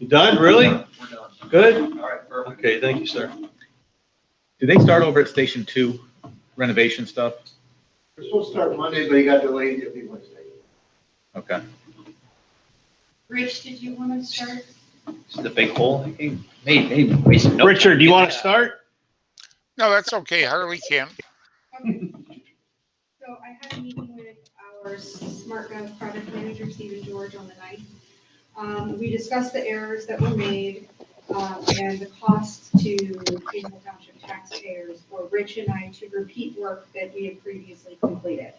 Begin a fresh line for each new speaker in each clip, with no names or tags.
You done, really?
We're done.
Good?
All right, perfect.
Okay, thank you, sir.
Did they start over at Station Two renovation stuff?
We're supposed to start Monday, but he got delayed, it'll be Wednesday.
Okay.
Rich, did you want to start?
This is the big hole. Hey, hey, Mason, no-
Richard, do you want to start?
No, that's okay. Harley can.
So I had a meeting with our SmartGov project manager, Stephen George, on the ninth. Um, we discussed the errors that were made, um, and the cost to Greenville Township taxpayers for Rich and I to repeat work that we had previously completed.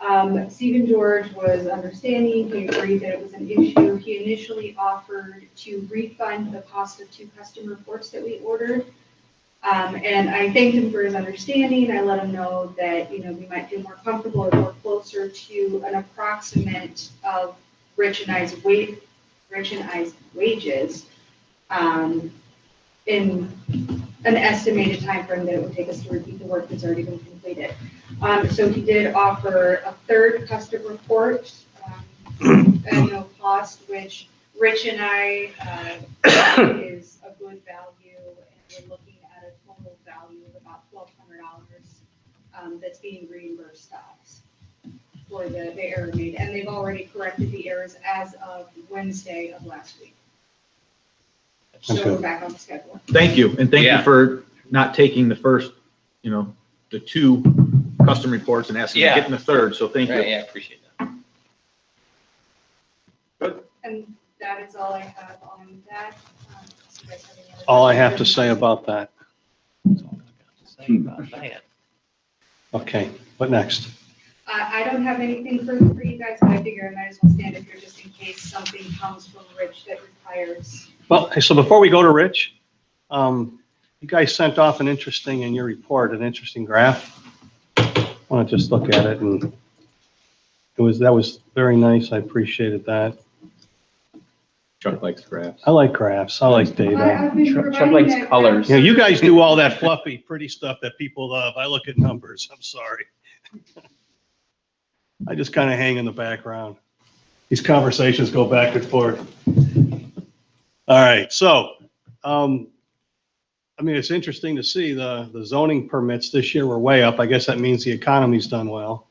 Um, Stephen George was understanding, he agreed that it was an issue. He initially offered to refund the cost of two custom reports that we ordered. Um, and I thanked him for his understanding. I let him know that, you know, we might feel more comfortable or more closer to an approximate of Rich and I's wa- Rich and I's wages. Um, in an estimated timeframe that it would take us to repeat the work that's already been completed. Um, so he did offer a third custom report, um, at no cost, which Rich and I, uh, is a good value, and we're looking at a total value of about twelve hundred dollars um, that's being reimbursed to us for the, the error made, and they've already corrected the errors as of Wednesday of last week. So we're back on schedule.
Thank you, and thank you
Yeah.
for not taking the first, you know, the two custom reports and asking,
Yeah.
getting the third, so thank
Right,
you.
Yeah, I appreciate that.
And that is all I have on that. Um, so you guys have any other
All I have to
questions?
say about that.
Say about that.
Okay, what next?
Uh, I, I don't have anything further for you guys, but I figure I might as well stand up here just in case something comes from Rich that requires.
Well, so before we go to Rich, um, you guys sent off an interesting, in your report, an interesting graph. I want to just look at it and it was, that was very nice. I appreciated that.
Chuck likes graphs.
I like graphs. I like
I-
data.
I've been
Trump-
providing um,
Trump likes
that-
colors.
You know, you guys do all that fluffy, pretty stuff that people love. I look at numbers. I'm sorry. I just kind of hang in the background. These conversations go back and forth. All right, so, um, I mean, it's interesting to see the, the zoning permits this year were way up. I guess that means the economy's done well.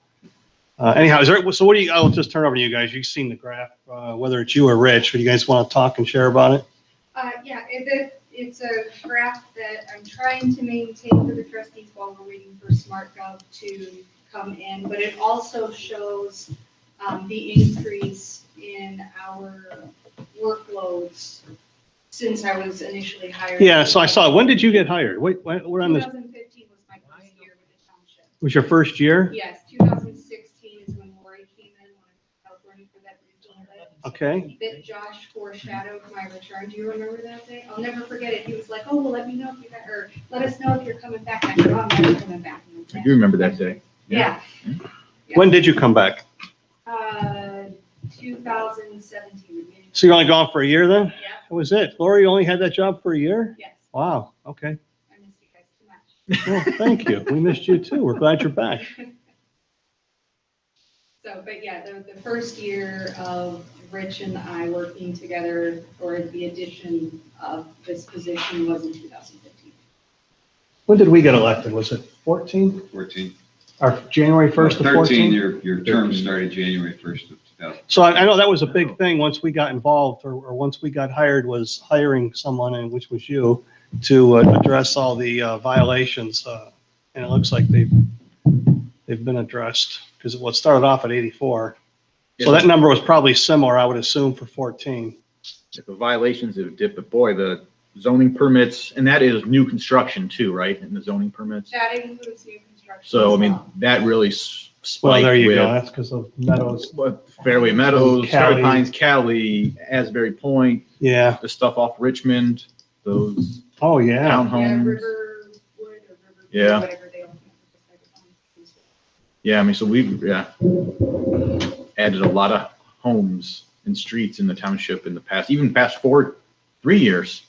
Uh, anyhow, is there, so what do you, I'll just turn over to you guys. You've seen the graph, uh, whether it's you or Rich, but you guys want to talk and share about it?
Uh, yeah, it, it- it's a graph that I'm trying to maintain for the trustees while we're waiting for SmartGov to come in, but it also shows, um, the increase in our workloads since I was initially hired.
Yeah, so I saw, when did you get hired? Wait, what, what on this,
2015 was my first year with the township.
was your first year?
Yes, 2016 is when Lori came in, when I was running for that regional head
Okay,
that Josh foreshadowed my return. Do you remember that day? I'll never forget it. He was like, oh, well, let me know if you got, or let us know if you're coming back. I said, oh, I'm never coming back. And he
I
said,
do remember that day.
Yeah.
when did you come back?
Uh, 2017. the beginning.
So you're only gone for a year then?
Yeah,
That was it? Lori you only had that job for a year?
yes.
Wow, okay.
I missed you guys too much.
Well, thank you. We missed you too. We're glad you're back.
So, but yeah, the, the first year of Rich and I working together or the addition of this position was in 2015.
When did we get elected? Was it 14?
14.
Or January 1st to
13,
14?
your, your term started January 1st of 2000.
So I, I know that was a big thing once we got involved or, or once we got hired was hiring someone, and which was you, to uh, address all the uh, violations. uh, And it looks like they've, they've been addressed because what started off at 84. So that number was probably similar, I would assume, for 14.
If The violations have dipped, but boy, the zoning permits, and that is new construction too, right? And the zoning permits.
That includes new construction.
So, I
as
mean,
well.
that really s-
Well, there
spiked
you go,
with
that's because of Meadows.
what, Fairway Meadows,
Cali.
Fairway Pines, Cali, Asbury Point,
Yeah,
the stuff off Richmond, those
oh, yeah.
Yeah,
townhomes.
Riverwood or River.
Yeah.
Whatever they all. pronounce it.
Yeah, I mean, so we've, yeah, added a lot of homes and streets in the township in the past, even past four, three years.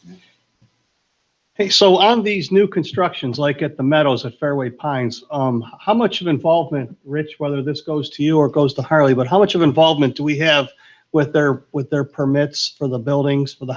Hey, so on these new constructions, like at the Meadows at Fairway Pines, um, how much of involvement, Rich, whether this goes to you or goes to Harley, but how much of involvement do we have with their, with their permits for the buildings, for the